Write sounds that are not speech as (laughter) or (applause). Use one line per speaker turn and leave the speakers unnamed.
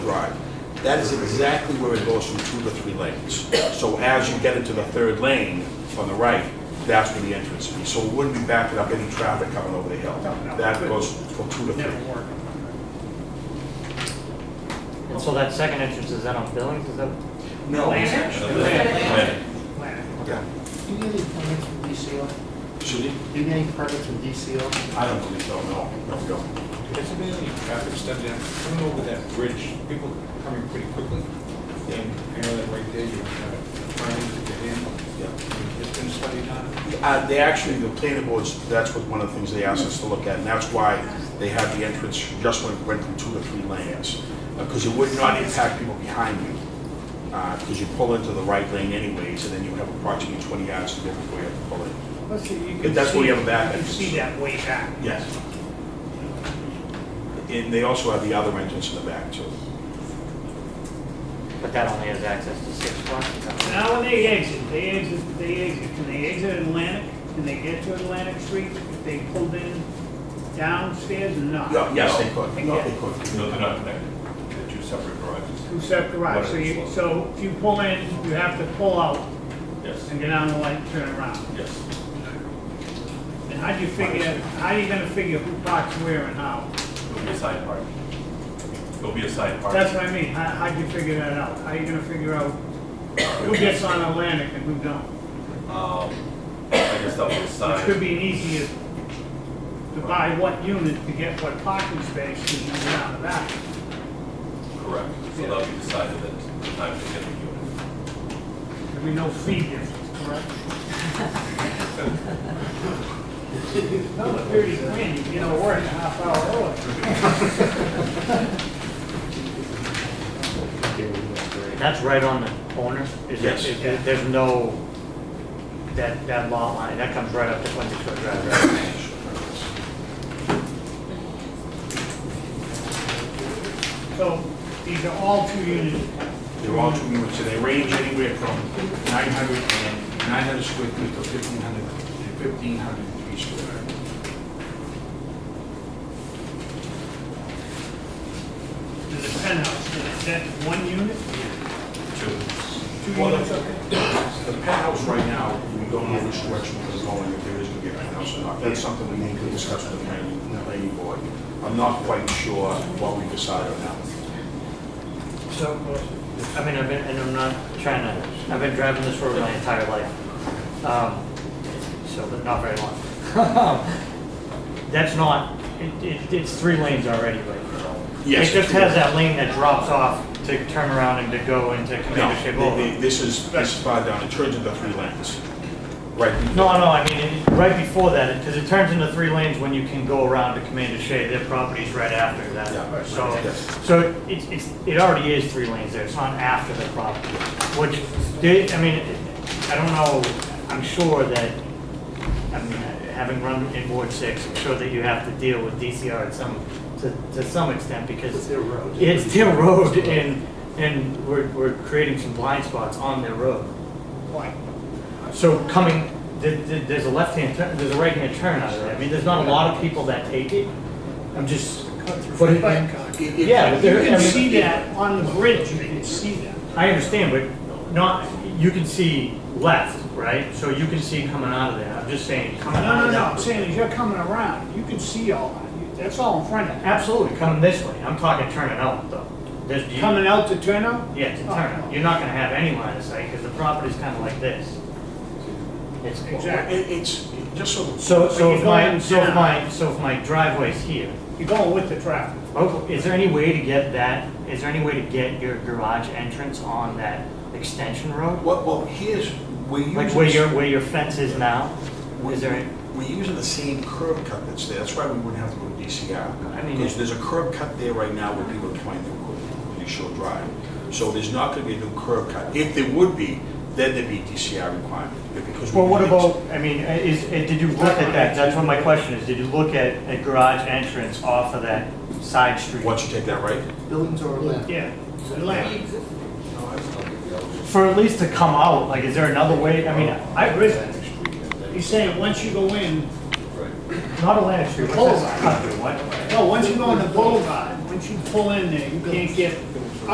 Drive. That is exactly where it goes from two to three lanes. So as you get into the third lane on the right, that's where the entrance would be. So it wouldn't be backing up any traffic coming over the hill.
No, no.
That goes from two to
Never
three.
work.
And so that second entrance is that on Billings? Is that?
No.
Plan.
Yeah.
Do you get any permits from DCO?
Should he?
Do you get any permits from DCO?
I don't believe so, no. No, we don't.
It's amazing, traffic study, I'm coming over that bridge, people coming pretty quickly. And I know that right there, you're trying to get in,
Yeah.
it's been studied on.
Uh, They actually, the planning boards, that's what, one of the things they asked us to look at, and that's why they had the entrance just when it went from two to three lanes. Because it would not impact people behind you, because you pull into the right lane anyways, and then you have approximately 20 yards to go before you have to pull in.
Let's see, you can
That's where you
see-
have a back
You can
entrance.
see that way back.
Yes. And they also have the other entrance in the back, too.
But that only has access to six cars.
Now, when they exit, they exit, they exit, can they exit Atlantic? Can they get to Atlantic Street if they pulled in downstairs or not?
Yeah, Yes, they could.
No.
They could.
No, they're not connected. They're two separate garages.
Two separate rides, so you, so if you pull in, you have to pull out
Yes,
and get on the light and turn around.
yes.
And how do you figure, how are you gonna figure who parks where and how?
There'll be a side park. There'll be a side park.
That's what I mean, how, how'd you figure that out? How are you gonna figure out who gets on Atlantic and who don't?
Um, I guess that'll be a
It could
side.
be an easier to buy what unit to get what parking space and then get out of that.
Correct. So that'll be decided at the time they get the unit.
There'd be no fee difference, correct? No, the thirty grand, you get to work a half hour early.
That's right on the corner. Is
Yes.
it- is- There's no, that, that lot line, that comes right up to Quincy Foot Drive, right?
So these are all two units.
They're all two units, so they range anywhere from 900 and 900 square feet to 1,500, 1,503 square.
There's a penthouse, is that one unit? Two
Well,
units up there?
The penthouse right now, we don't know which direction we're going, if there is going to be a penthouse or not. That's something we need to discuss with the planning, planning board. I'm not quite sure what we decide on that.
So,
I mean, I've been, and I'm not trying to, I've been driving this road my entire life. Um, So, but not very long. (laughs) That's not, it, it, it's three lanes already, right?
Yes,
It just
it's-
has that lane that drops off to turn around and to go into Commander
No,
Shabola.
the- the- this is specified down, it turns into three lanes. Right,
No, no, I mean, it- right before that, because it turns into three lanes when you can go around to Commander Shea, their property's right after
Yeah.
that. So,
Yes.
so it's, it's, it already is three lanes there, it's not after the property, which, they, I mean, I don't know, I'm sure that, I mean, having run in Ward Six, I'm sure that you have to deal with DCR at some, to, to some extent, because
It's their road.
it's their road, and, and we're, we're creating some blind spots on their road.
why?
So coming, th- th- there's a left-hand turn, there's a right-hand turn out of there. I mean, there's not a lot of people that take it. I'm just, but it- yeah, but
You
there- I
can
mean,
see that on the bridge, you can see that.
I understand, but not, you can see left, right? So you can see coming out of there. I'm just saying, coming
No,
out
no,
of
no, I'm
there.
saying as you're coming around, you can see all that, You- that's all in front of you.
Absolutely, coming this way. I'm talking turning out though. There's, you-
Coming out to Oh, turnout?
yeah, to turn out. You're not gonna have any line of sight because the property's kind of like this. It's,
Exactly.
it- it's, just so.
so,
But
so
you're
if my,
going
so if
down.
my, so if my driveway's here,
You're going with the traffic.
Oh, is there any way to get that, is there any way to get your garage entrance on that extension road?
Well, well, here's, we use.
Like where your, where your fence is now?
We're,
Is there, any-
we're using the same curb cut that's there, that's why we wouldn't have to go to DCR.
I mean,
Because
it-
there's a curb cut there right now where people are trying to go to Shore Drive. So there's not gonna be a new curb cut. If there would be, then there'd be DCR requirement, because. we-
well, what about, I mean, uh, is, did you look at that? That's what my question is, did you look at a garage entrance off of that side street?
Once you take that right,
Buildings or land?
Yeah, Atlantic.
For at least to come out, like, is there another way? I mean, I,
I agree. He's saying, once you go in,
not a land street, what's
Boulevard.
that? Country, what?
no, once you go on the boulevard, once you pull in there, you can't get